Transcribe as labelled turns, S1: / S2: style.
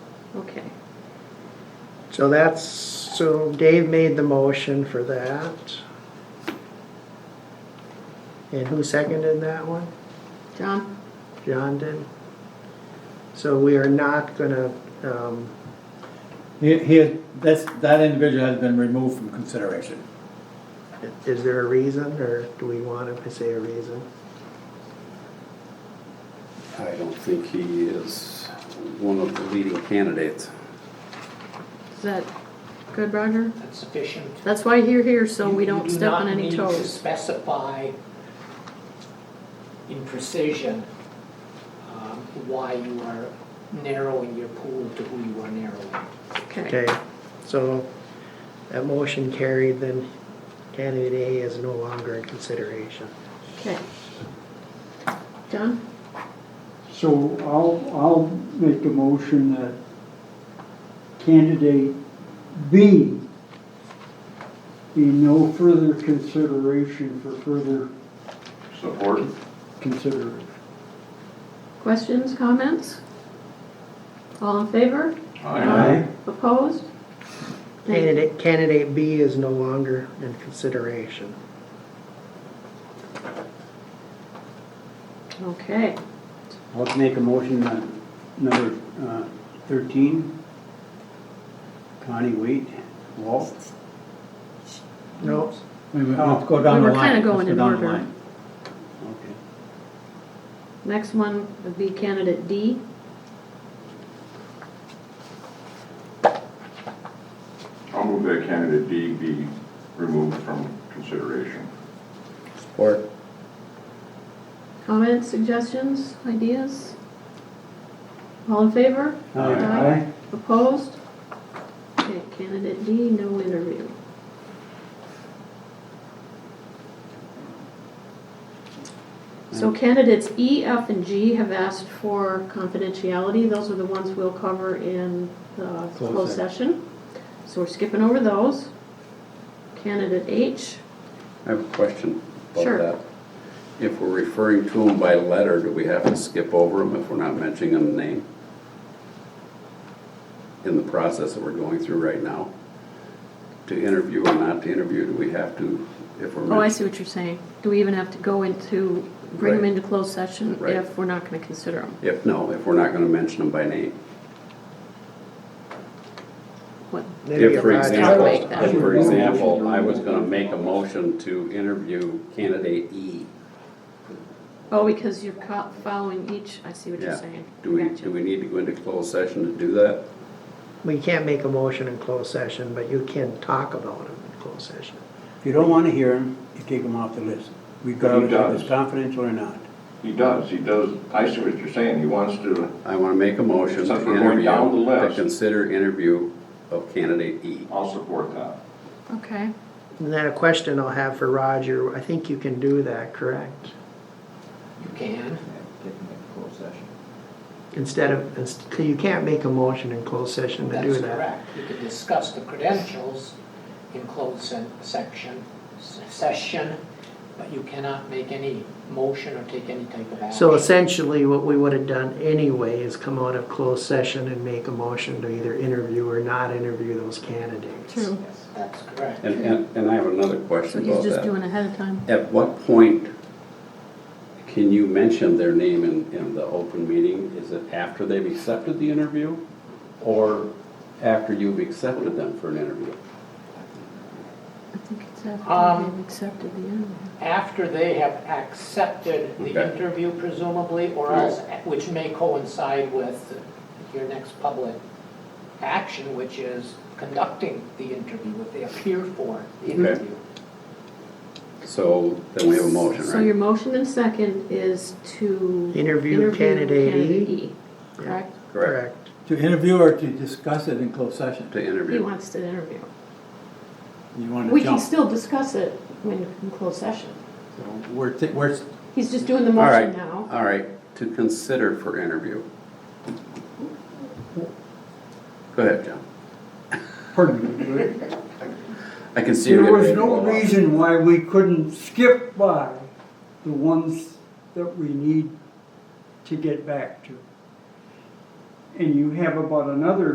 S1: Okay.
S2: So that's, so Dave made the motion for that. And who seconded that one?
S1: John?
S2: John did? So we are not gonna, um,
S3: He, he, is- that's, that individual has been removed from consideration.
S2: is there a reason or do we want to say a reason?
S4: I don't think he is one of the leading candidates.
S1: Is that good, Roger?
S5: That's sufficient.
S1: That's why you're here, so
S5: You-
S1: we
S5: you
S1: don't
S5: do
S1: step
S5: not
S1: on any
S5: need to
S1: toes.
S5: Specify in precision um, why you are narrowing your pool to who you are narrowing.
S1: Okay.
S2: Okay, so that motion carried, then candidate A is no longer in consideration.
S1: Okay. John?
S6: So I'll, I'll make a motion that candidate B be no further consideration for further
S4: Support.
S6: consideration.
S1: Questions, comments? All in favor? Opposed?
S2: Candidate, candidate B is no longer in consideration.
S1: Okay.
S7: I'll make a motion on number uh, 13. Connie Wait, Walt.
S2: No,
S3: Wait a minute, Let's go
S1: We
S3: down the
S1: were kinda
S3: line.
S1: going
S3: Let's go
S1: in
S3: down the
S1: order.
S3: line.
S7: Okay.
S1: Next one would be candidate D.
S8: I'll move that candidate D be removed from consideration.
S3: Support.
S1: Comments, suggestions, ideas? All in favor?
S7: Aye.
S1: Opposed? Okay, candidate D, no interview. So candidates E, F, and G have asked for confidentiality. Those are the ones we'll cover in the
S3: Closed
S1: closed session. So we're skipping over those. Candidate H,
S4: I have a question
S1: Sure.
S4: about that. If we're referring to him by letter, do we have to skip over him if we're not mentioning him name? In the process that we're going through right now? To interview or not to interview, do we have to, if we're
S1: Oh, I
S4: mentioning?
S1: see what you're saying. Do we even have to go into, bring them
S4: Right.
S1: into closed session
S4: Right.
S1: if we're not gonna consider them?
S4: If, no, if we're not gonna mention him by name.
S1: What,
S2: maybe
S4: If, for
S2: Roger-
S4: example,
S1: I'll make that.
S4: if, for example, I was gonna make a motion to interview candidate E,
S1: oh, because you're co- following each, I see what you're
S4: Yeah.
S1: saying.
S4: do we,
S1: Gotcha.
S4: do we need to go into closed session to do that?
S2: We can't make a motion in closed session, but you can talk about it in closed session.
S7: If you don't want to hear him, you take him off the list, regardless if it's confidential or not.
S8: He does, he does, I see what you're saying, he wants to,
S4: I want to make a motion to
S8: Since we're going
S4: interview,
S8: down the
S4: to
S8: list.
S4: consider interview of candidate E.
S8: I'll support that.
S1: Okay,
S2: And then a question I'll have for Roger, I think you can do that, correct?
S5: You can.
S2: Instead of, inst- you can't make a motion in closed session to do
S5: That's
S2: that.
S5: correct. You can discuss the credentials in closed se- section, se- session, but you cannot make any motion or take any type of action.
S2: So essentially, what we would have done anyway is come out of closed session and make a motion to either interview or not interview those candidates.
S1: true.
S5: That's correct.
S4: And, and, and I have another
S1: So
S4: question
S1: he's
S4: about
S1: just
S4: that.
S1: doing ahead of time.
S4: At what point can you mention their name in, in the open meeting? Is it after they've accepted the interview? Or after you've accepted them for an interview?
S1: I think it's after
S5: Um,
S1: they've accepted the interview.
S5: After they have accepted the
S4: Okay.
S5: interview presumably, or
S4: Right.
S5: else, which may coincide with your next public action, which is conducting the interview, if they appear for the interview.
S4: So then we have a motion,
S1: So your
S4: right?
S1: motion and second is to.
S2: Interview candidate E?
S1: candidate E, correct?
S2: Correct.
S3: To interview or to discuss it in closed session?
S4: To
S1: He
S4: interview.
S1: wants to interview.
S7: You want to
S1: We can
S7: jump.
S1: still discuss it when, in closed session.
S3: So We're, ta- we're, s-
S1: He's just doing the
S4: All right,
S1: motion now.
S4: all right, to consider for interview. Go ahead, John.
S6: Pardon me, but
S4: I can see. you're getting
S6: There was
S4: ready to
S6: no
S4: blow up.
S6: reason why we couldn't skip by the ones that we need to get back to. And you have about another